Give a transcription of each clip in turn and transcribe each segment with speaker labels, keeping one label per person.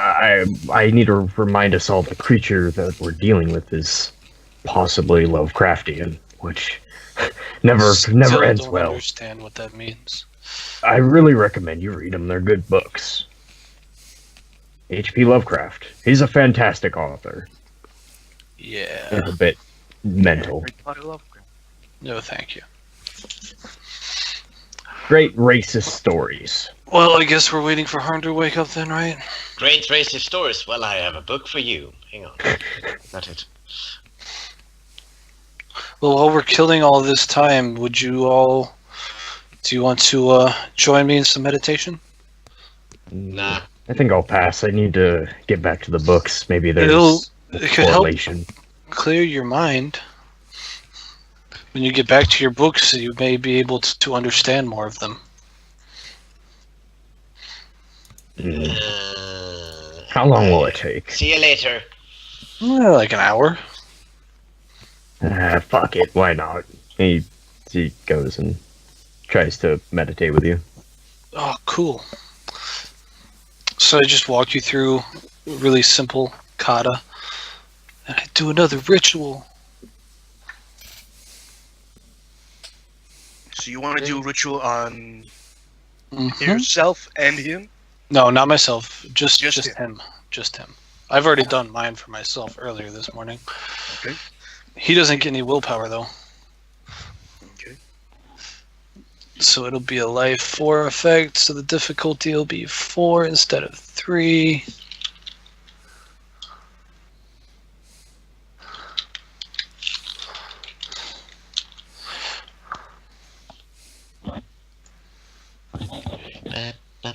Speaker 1: I I need to remind us all the creature that we're dealing with is possibly Lovecraftian, which never
Speaker 2: Still
Speaker 1: never ends
Speaker 2: don't
Speaker 1: well.
Speaker 2: Understand what that means?
Speaker 1: I really recommend you read them. They're good books. H.P. Lovecraft. He's a fantastic author.
Speaker 2: Yeah.
Speaker 1: He's a bit mental.
Speaker 2: No, thank you.
Speaker 1: Great racist stories.
Speaker 2: Well, I guess we're waiting for Harm to wake up then, right?
Speaker 3: Great racist stories. Well, I have a book for you. Hang on. Not it.
Speaker 2: Well, while we're killing all this time, would you all? Do you want to uh, join me in some meditation?
Speaker 3: Nah.
Speaker 1: I think I'll pass. I need to get back to the books. Maybe there's
Speaker 2: It'll-
Speaker 1: a
Speaker 2: it could help.
Speaker 1: correlation.
Speaker 2: Clear your mind. When you get back to your books, you may be able to, to understand more of them.
Speaker 1: Mm.
Speaker 3: Uh,
Speaker 1: How long will it take?
Speaker 3: see you later.
Speaker 2: Well, like an hour.
Speaker 1: Ah, fuck it. Why not? He he goes and tries to meditate with you.
Speaker 2: Oh, cool. So I just walk you through a really simple kata, and I do another ritual.
Speaker 4: So you want to do a ritual on Mm-hmm.
Speaker 2: Mhm.
Speaker 4: yourself and him?
Speaker 2: No, not myself. Just
Speaker 4: Just
Speaker 2: just, him. Just him. I've already done mine for myself earlier this morning.
Speaker 4: Okay.
Speaker 2: He doesn't get any willpower though.
Speaker 4: Okay.
Speaker 2: So it'll be a life four effect. So the difficulty will be four instead of three.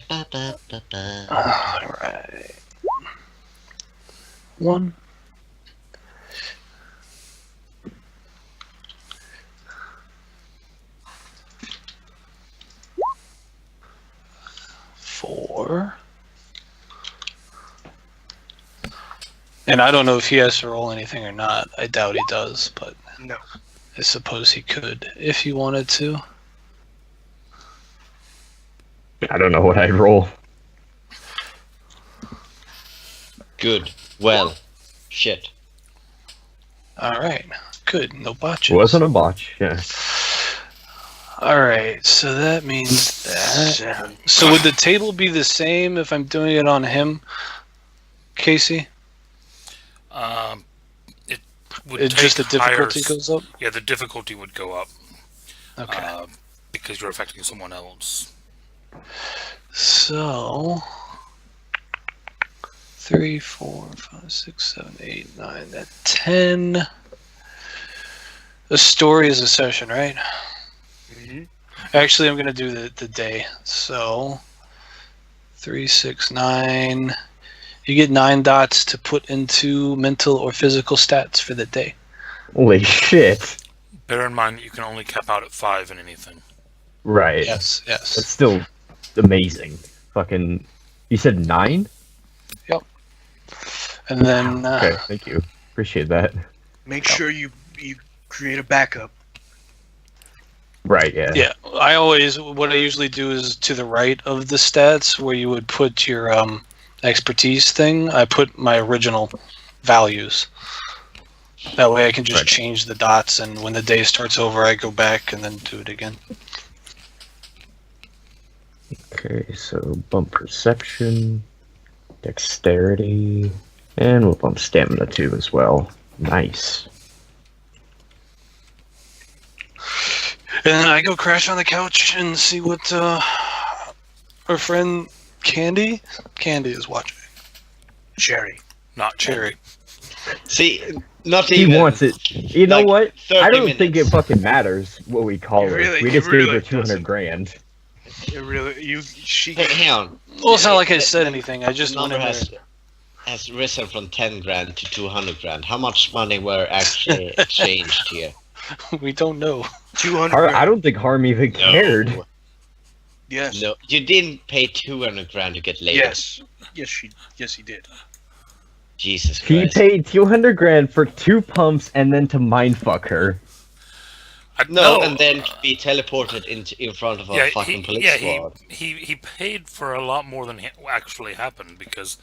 Speaker 3: Ba-ba-ba-ba-ba.
Speaker 2: All right. One. Four. And I don't know if he has to roll anything or not. I doubt he does, but
Speaker 4: No.
Speaker 2: I suppose he could if he wanted to.
Speaker 1: I don't know what I'd roll.
Speaker 3: Good. Well. Shit.
Speaker 2: All right. Good. No botches.
Speaker 1: Wasn't a botch. Yeah.
Speaker 2: All right, so that means that.
Speaker 4: Seven.
Speaker 2: So would the table be the same if I'm doing it on him, Casey?
Speaker 5: Um, it would
Speaker 2: It just the
Speaker 5: take higher
Speaker 2: difficulty
Speaker 5: s-
Speaker 2: goes up.
Speaker 5: Yeah, the difficulty would go up
Speaker 2: Okay.
Speaker 5: uh, because you're affecting someone else.
Speaker 2: so three, four, five, six, seven, eight, nine, that ten. A story is a session, right?
Speaker 4: Mhm.
Speaker 2: Actually, I'm gonna do the, the day. So three, six, nine. You get nine dots to put into mental or physical stats for the day.
Speaker 1: Holy shit.
Speaker 5: Bear in mind that you can only cap out at five in anything.
Speaker 1: Right.
Speaker 2: Yes,
Speaker 1: That's
Speaker 2: yes.
Speaker 1: still amazing. Fucking. You said nine.
Speaker 2: And then uh,
Speaker 1: Okay. Thank you. Appreciate that.
Speaker 4: Make sure you you create a backup.
Speaker 1: Right. Yeah.
Speaker 2: yeah, I always what I usually do is to the right of the stats where you would put your um expertise thing. I put my original values. That way I can just
Speaker 1: Right.
Speaker 2: change the dots and when the day starts over I go back and then do it again.
Speaker 1: Okay. So bump perception, dexterity, and we'll bump stamina too as well. Nice.
Speaker 2: And then I go crash on the couch and see what uh, our friend Candy, Candy is watching.
Speaker 4: Sherry.
Speaker 5: Not
Speaker 2: Cherry.
Speaker 3: See, not
Speaker 1: He
Speaker 3: even.
Speaker 1: wants it. You know
Speaker 3: Like,
Speaker 1: what?
Speaker 3: 30
Speaker 1: I don't
Speaker 3: minutes.
Speaker 1: think it fucking matters what we call
Speaker 4: It
Speaker 1: her.
Speaker 4: really-
Speaker 1: we
Speaker 4: it
Speaker 1: just gave
Speaker 4: really
Speaker 1: her two hundred
Speaker 4: doesn't.
Speaker 1: grand.
Speaker 4: It really you she
Speaker 3: Hey, hang on.
Speaker 2: Well, it's not like I said anything. I just
Speaker 3: number
Speaker 2: wanted
Speaker 3: has
Speaker 2: to.
Speaker 3: has risen from ten grand to two hundred grand. How much money were actually exchanged here?
Speaker 2: We don't know.
Speaker 4: two
Speaker 1: Har-
Speaker 4: hundred.
Speaker 1: I don't think Harm even cared.
Speaker 4: Yes.
Speaker 3: No, you didn't pay two hundred grand to get laid.
Speaker 4: Yes. Yes. She. Yes, he did.
Speaker 3: Jesus
Speaker 1: He
Speaker 3: Christ.
Speaker 1: paid two hundred grand for two pumps and then to mindfuck her.
Speaker 5: I,
Speaker 3: no, and then to be teleported into in front of a
Speaker 5: yeah,
Speaker 3: fucking
Speaker 5: he,
Speaker 3: police
Speaker 5: yeah,
Speaker 3: squad.
Speaker 5: he, he he paid for a lot more than ha- actually happened because